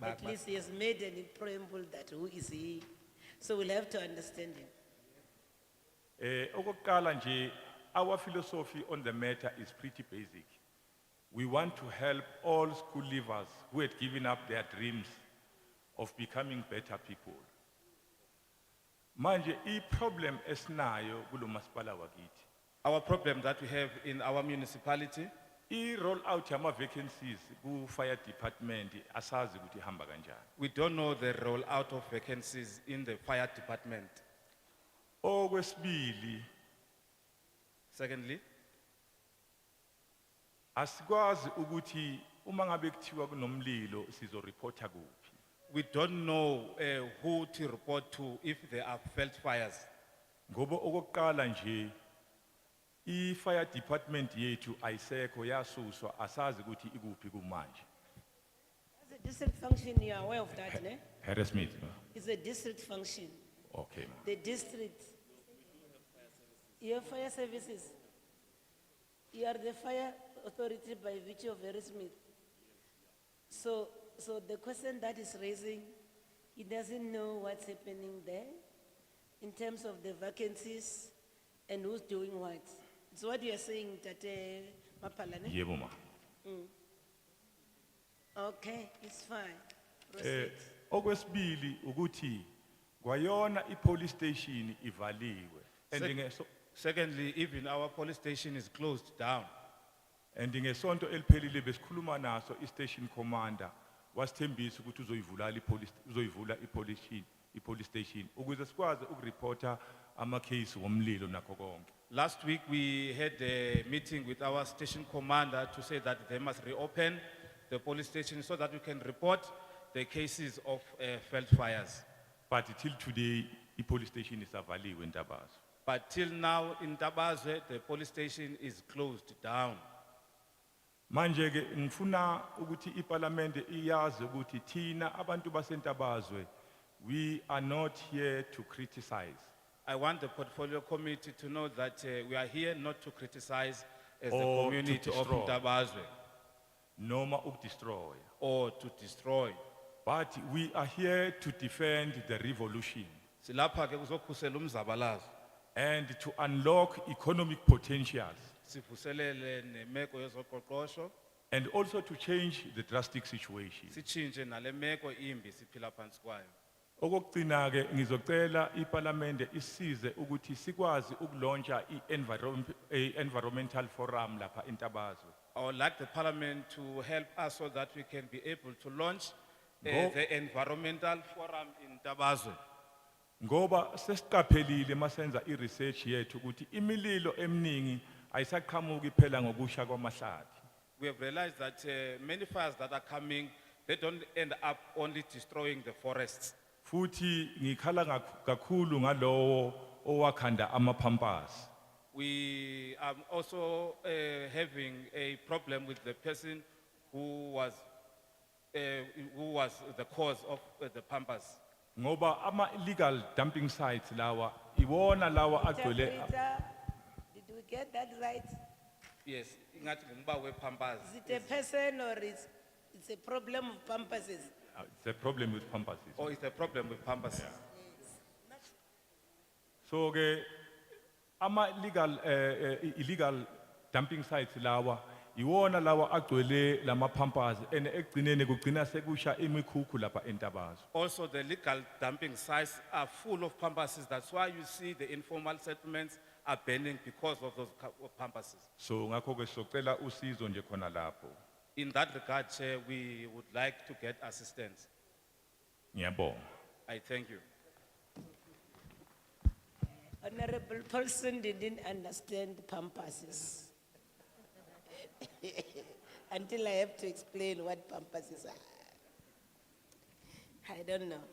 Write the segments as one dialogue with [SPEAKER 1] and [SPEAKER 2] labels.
[SPEAKER 1] But-
[SPEAKER 2] At least he has made an preamble that who is he? So we'll have to understand him.
[SPEAKER 1] Eh, okokuqala nje, our philosophy on the matter is pretty basic. We want to help all school leavers who had given up their dreams of becoming better people. Manje, i problem esinayo kulomasipala wakithi.
[SPEAKER 3] Our problem that we have in our municipality,
[SPEAKER 1] I roll out yama vacancies ku fire department asazi kuti hamba kanjani.
[SPEAKER 3] we don't know the rollout of vacancies in the fire department.
[SPEAKER 1] Okwesibili,
[SPEAKER 3] Secondly,
[SPEAKER 1] asikwazi ukuthi uma ngabe kuthiwa kunomlilo sizoreporta kuphi.
[SPEAKER 3] we don't know eh who to report to if there are felt fires.
[SPEAKER 1] Ngoba okokuqala nje i fire department yethu ayisekho yasuswa asazi ukuthi ikuphi kumanje.
[SPEAKER 2] As a district function, you are aware of that, ne?
[SPEAKER 1] Harry Smith.
[SPEAKER 2] It's a district function.
[SPEAKER 1] Okay. ma'am.
[SPEAKER 2] The district. You have fire services. You are the fire authority by virtue of Harry Smith. So, so the question that is raising, he doesn't know what's happening there in terms of the vacancies and who's doing what. It's what you are saying, Tate Mapalane?
[SPEAKER 1] Yebo ma.
[SPEAKER 2] Okay, it's fine.
[SPEAKER 1] Eh
[SPEAKER 2] Proceed.
[SPEAKER 1] okwesibili ukuthi kwayona i police station ivaliwe. And
[SPEAKER 3] Sec-
[SPEAKER 1] ngeso
[SPEAKER 3] Secondly, even our police station is closed down.
[SPEAKER 1] and ngesonto eliphelile besikhuluma naso i station commander wasithembisa ukuthi uzoyivula i police uzoyivula i police station i police station ukuze sikwazi ukureporta ama case womlilo nakho konke.
[SPEAKER 3] Last week, we had a meeting with our station commander to say that they must reopen the police station so that we can report the cases of eh felt fires.
[SPEAKER 1] But till today, the police station is avaliwe Ndabazo.
[SPEAKER 3] But till now, in Tabazwe, the police station is closed down.
[SPEAKER 1] Manje ke ngifuna ukuthi iparlamente iyazi ukuthi thina abantu basentabazwe we are not here to criticize
[SPEAKER 3] I want the portfolio committee to know that eh, we are here not to criticize as the
[SPEAKER 1] Or to
[SPEAKER 3] community of
[SPEAKER 1] destroy.
[SPEAKER 3] Tabazwe
[SPEAKER 1] noma ukudestroy
[SPEAKER 3] or to destroy.
[SPEAKER 1] but we are here to defend the revolution
[SPEAKER 3] Silapha ke kuzokhusela umzabalazo,
[SPEAKER 1] and to unlock economic potentials
[SPEAKER 3] sivuselele nemeko yezoqoqosho,
[SPEAKER 1] and also to change the drastic situation
[SPEAKER 3] sichinje nalemeko imbi siphila phansi kwayo.
[SPEAKER 1] okokugcina ke ngizocela iparlamente isize ukuthi sikwazi ukulontsha i-environmental forum lapha entabazwe
[SPEAKER 3] I would like the parliament to help us so that we can be able to launch eh,
[SPEAKER 1] Ngo-
[SPEAKER 3] the environmental forum in Tabazwe.
[SPEAKER 1] Ngoba sesiqaphelile masenza i-research yethu ukuthi imililo eminingi ayisaqhamuki phela ngokusha kwamahlathi.
[SPEAKER 3] We have realized that uh, many fires that are coming, they don't end up only destroying the forests.
[SPEAKER 1] Futhi ngikhala ngak- kakhulu ngalowo owakhanda amapampas.
[SPEAKER 3] We are also uh, having a problem with the person who was, uh, who was the cause of uh, the pampas.
[SPEAKER 1] Ngoba ama illegal dumping sites lawa iwona lawa agcwele
[SPEAKER 2] Interpreter, did we get that right?
[SPEAKER 3] Yes, ingat ngumba we pampas.
[SPEAKER 2] Is it a person or is, it's a problem of pampases?
[SPEAKER 1] the problem with pampas. is-
[SPEAKER 3] Or it's a problem with pampas.
[SPEAKER 1] So ke ama legal eh eh, illegal dumping sites lawa iwona lawa agcwele lama pampers and ekugcineni kugcina sekusha imikhukhu lapha entabazwe.
[SPEAKER 3] Also, the legal dumping sites are full of pampases. That's why you see the informal settlements are burning because of those ca- pampases.
[SPEAKER 1] So ngakho ke socela usizo nje khona lapho.
[SPEAKER 3] In that regard, Chair, we would like to get assistance.
[SPEAKER 1] Ngiyabonga.
[SPEAKER 3] I thank you.
[SPEAKER 2] Honorable Paulson didn't understand pampases. Until I have to explain what pampases are. I don't know,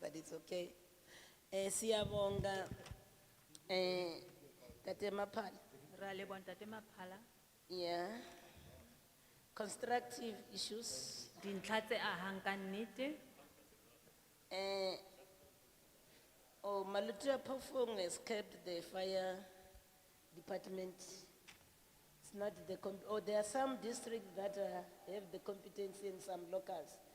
[SPEAKER 2] but it's okay. Eh, siyabonga, eh, Tate Maphala.
[SPEAKER 4] Ra leboha ntate Maphala,
[SPEAKER 2] Yeah. Constructive issues.
[SPEAKER 4] dintlha tse ahang ka nnete.
[SPEAKER 2] Eh, oh, Malutia Pofong escaped the fire department. It's not the, com- oh, there are some districts that uh, have the competency and some locals.